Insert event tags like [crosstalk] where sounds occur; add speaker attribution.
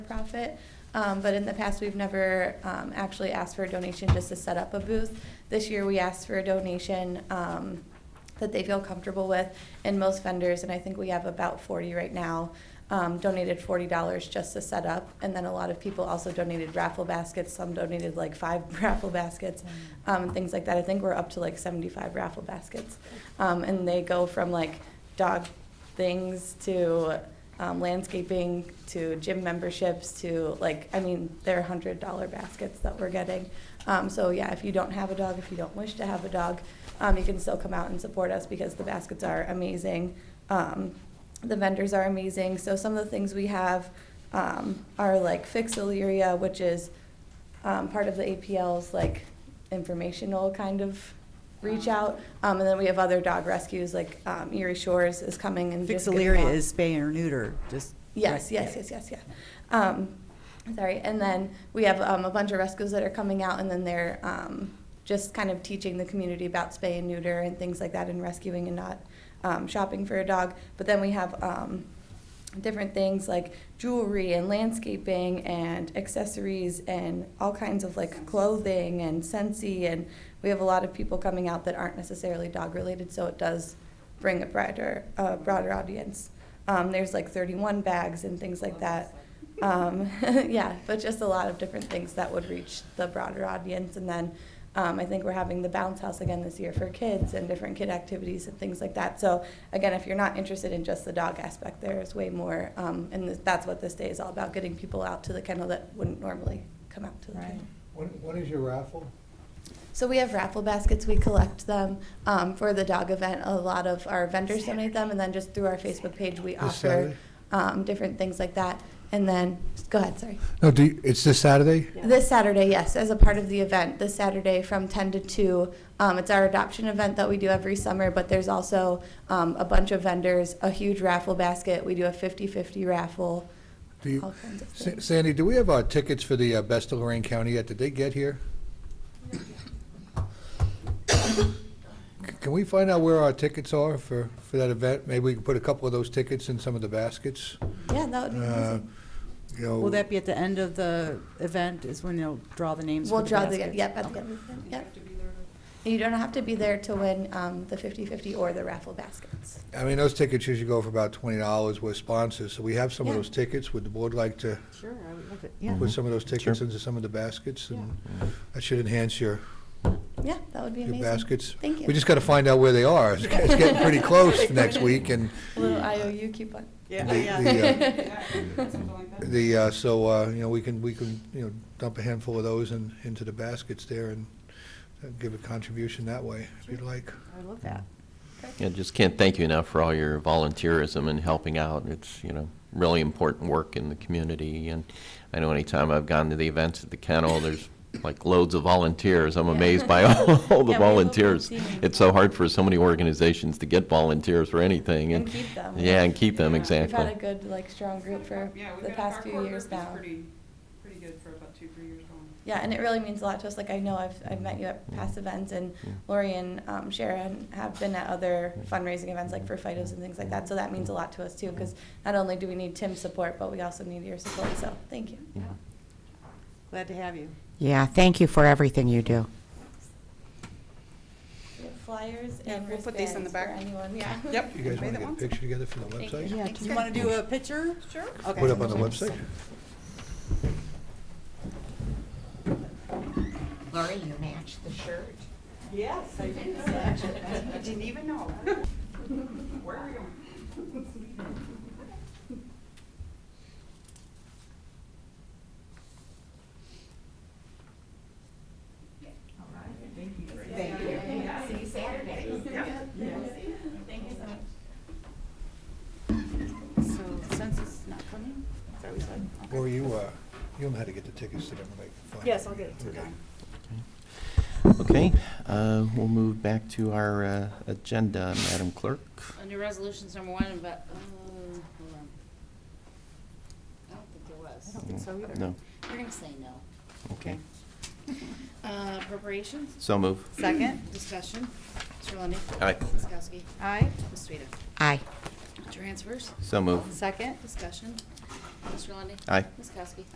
Speaker 1: nonprofit. Um, but in the past, we've never um, actually asked for a donation just to set up a booth. This year, we asked for a donation um, that they feel comfortable with, and most vendors, and I think we have about 40 right now, um, donated $40 just to set up. And then a lot of people also donated raffle baskets. Some donated like five [laughs] raffle baskets, um, and things like that. I think we're up to like 75 raffle baskets, um, and they go from like dog things to um, landscaping to gym memberships to like I mean they're hundred dollar baskets that we're getting. Um, so yeah, if you don't have a dog, if you don't wish to have a dog, um, you can still come out and support us because the baskets are amazing. Um, the vendors are amazing. So some of the things we have um, are like Fixilleria, which is um, part of the APL's like informational kind of reach out. Um, and then we have other dog rescues like um, Erie Shores is coming and just giving
Speaker 2: Fixaleria
Speaker 1: out-
Speaker 2: is spay or neuter, just.
Speaker 1: Yes, yes, yes, yes, yeah. Um, sorry, and then we have um, a bunch of rescues that are coming out, and then they're um, just kind of teaching the community about spay and neuter and things like that, and rescuing and not um, shopping for a dog. But then we have um, different things like jewelry and landscaping and accessories and all kinds of like clothing and scentsy, and we have a lot of people coming out that aren't necessarily dog related, so it does bring a broader, a broader audience. Um, there's like 31 bags and things like that. Um, [laughs] yeah, but just a lot of different things that would reach the broader audience. And then um, I think we're having the bounce house again this year for kids and different kid activities and things like that. So again, if you're not interested in just the dog aspect, there's way more. Um, and th- that's what this day is all about: getting people out to the kennel that wouldn't normally come out to the kennel.
Speaker 3: When, when is your raffle?
Speaker 1: So we have raffle baskets. We collect them um, for the dog event. A lot of our vendors donate them, and then just through our Facebook page, we
Speaker 3: This
Speaker 1: offer
Speaker 3: Saturday?
Speaker 1: um, different things like that. And then, go ahead, sorry.
Speaker 3: No, do, you- it's this Saturday?
Speaker 1: This Saturday, yes, as a part of the event, this Saturday from 10 to 2. Um, it's our adoption event that we do every summer, but there's also um, a bunch of vendors, a huge raffle basket. We do a 50 50 raffle,
Speaker 3: Do you-
Speaker 1: all kinds of
Speaker 3: Sa-
Speaker 1: things.
Speaker 3: Sandy, do we have our tickets for the uh, Best of Lorraine County yet? Did they get here? C- Can we find out where our tickets are for, for that event? Maybe we can put a couple of those tickets in some of the baskets?
Speaker 1: Yeah, that would be
Speaker 3: Uh,
Speaker 1: amazing.
Speaker 3: You know.
Speaker 2: Will that be at the end of the event is when you'll draw the names
Speaker 1: We'll
Speaker 2: for the
Speaker 1: draw the,
Speaker 2: baskets?
Speaker 1: yep, at the end of the event, yep. You don't have to be there to win um, the 50 50 or the raffle baskets.
Speaker 3: I mean, those tickets usually go for about twenty dollars with sponsors, so we have some of
Speaker 1: Yeah.
Speaker 3: those tickets. Would the board like to
Speaker 2: Sure, I would love it, yeah.
Speaker 3: put some of those tickets into some of the baskets? And That should enhance your,
Speaker 1: Yeah, that would be
Speaker 3: your
Speaker 1: amazing.
Speaker 3: baskets.
Speaker 1: Thank you.
Speaker 3: We just got to find out where they are. It's it's
Speaker 1: [laughs]
Speaker 3: getting pretty close next week, and
Speaker 1: A little IOU coupon.
Speaker 3: the,
Speaker 4: [laughs]
Speaker 3: the, uh, the, uh, so, uh, you know, we can, we can, you know, dump a handful of those in, into the baskets there and uh, give a contribution that way, if you'd like.
Speaker 2: I love that.
Speaker 5: Yeah, just can't thank you enough for all your volunteerism and helping out. It's, you know, really important work in the community. And I know anytime I've gone to the events at the kennel, there's like loads of volunteers. I'm amazed by [laughs] all,
Speaker 1: Yeah, we
Speaker 5: all the
Speaker 1: love
Speaker 5: volunteers.
Speaker 1: volunteering.
Speaker 5: It's so hard for so many organizations to get volunteers for anything.
Speaker 1: And keep them.
Speaker 5: Yeah, and keep them,
Speaker 4: Yeah.
Speaker 1: We've had a
Speaker 5: exactly.
Speaker 1: good, like, strong group for
Speaker 4: Yeah, we've
Speaker 1: the
Speaker 4: got-
Speaker 1: past
Speaker 4: our
Speaker 1: few
Speaker 4: core
Speaker 1: years
Speaker 4: group is
Speaker 1: now.
Speaker 4: Pretty, pretty good for about two, three years going.
Speaker 1: Yeah, and it really means a lot to us. Like, I know I've, I've met you at past events, and
Speaker 5: Yeah.
Speaker 1: Lori and um, Sharon have been at other fundraising events, like for FIDOs and things like that. So that means a lot to us, too, because not only do we need Tim's support, but we also need your support. So, thank you.
Speaker 2: Glad to have you.
Speaker 6: Yeah, thank you for everything you do.
Speaker 1: We have flyers
Speaker 4: Yeah,
Speaker 1: and
Speaker 4: we'll put these in the
Speaker 1: wristbands
Speaker 4: back.
Speaker 1: for anyone, yeah. [laughs]
Speaker 4: Yep.
Speaker 3: You guys
Speaker 4: Anybody
Speaker 3: want
Speaker 4: that
Speaker 3: to get a picture together
Speaker 4: wants
Speaker 3: for the
Speaker 1: Thank you.
Speaker 3: website?
Speaker 2: Yeah,
Speaker 4: Thanks,
Speaker 2: do you
Speaker 4: guys.
Speaker 2: want to do a picture? Sure. Okay.
Speaker 3: Put up on the website?
Speaker 6: Lori, you matched the shirt.
Speaker 4: Yes, I did. I didn't even know. Where are we going?
Speaker 6: See you Saturday.
Speaker 2: So since it's not coming, it's always like.
Speaker 3: Or you, uh, you know how to get the tickets to them, like. find
Speaker 2: Yes,
Speaker 3: out.
Speaker 2: I'll get it to
Speaker 3: Okay.
Speaker 2: them.
Speaker 5: Okay, uh, we'll move back to our uh, agenda, Madam Clerk.
Speaker 7: Under resolutions number one, but, uh, hold on. I don't think there
Speaker 2: I
Speaker 7: was.
Speaker 2: don't think so either.
Speaker 5: No,
Speaker 7: We're gonna say no.
Speaker 5: okay.
Speaker 7: Uh, appropriations,
Speaker 5: So move.
Speaker 2: Second?
Speaker 7: discussion, Mr. Lundey.
Speaker 5: Aye.
Speaker 7: Ms. Kowski.
Speaker 2: Aye.
Speaker 7: Ms. Sueda.
Speaker 6: Aye,
Speaker 7: Transfers,
Speaker 5: So move.
Speaker 2: Second?
Speaker 7: discussion, Mr. Lundey.
Speaker 5: Aye.
Speaker 7: Ms. Kowski.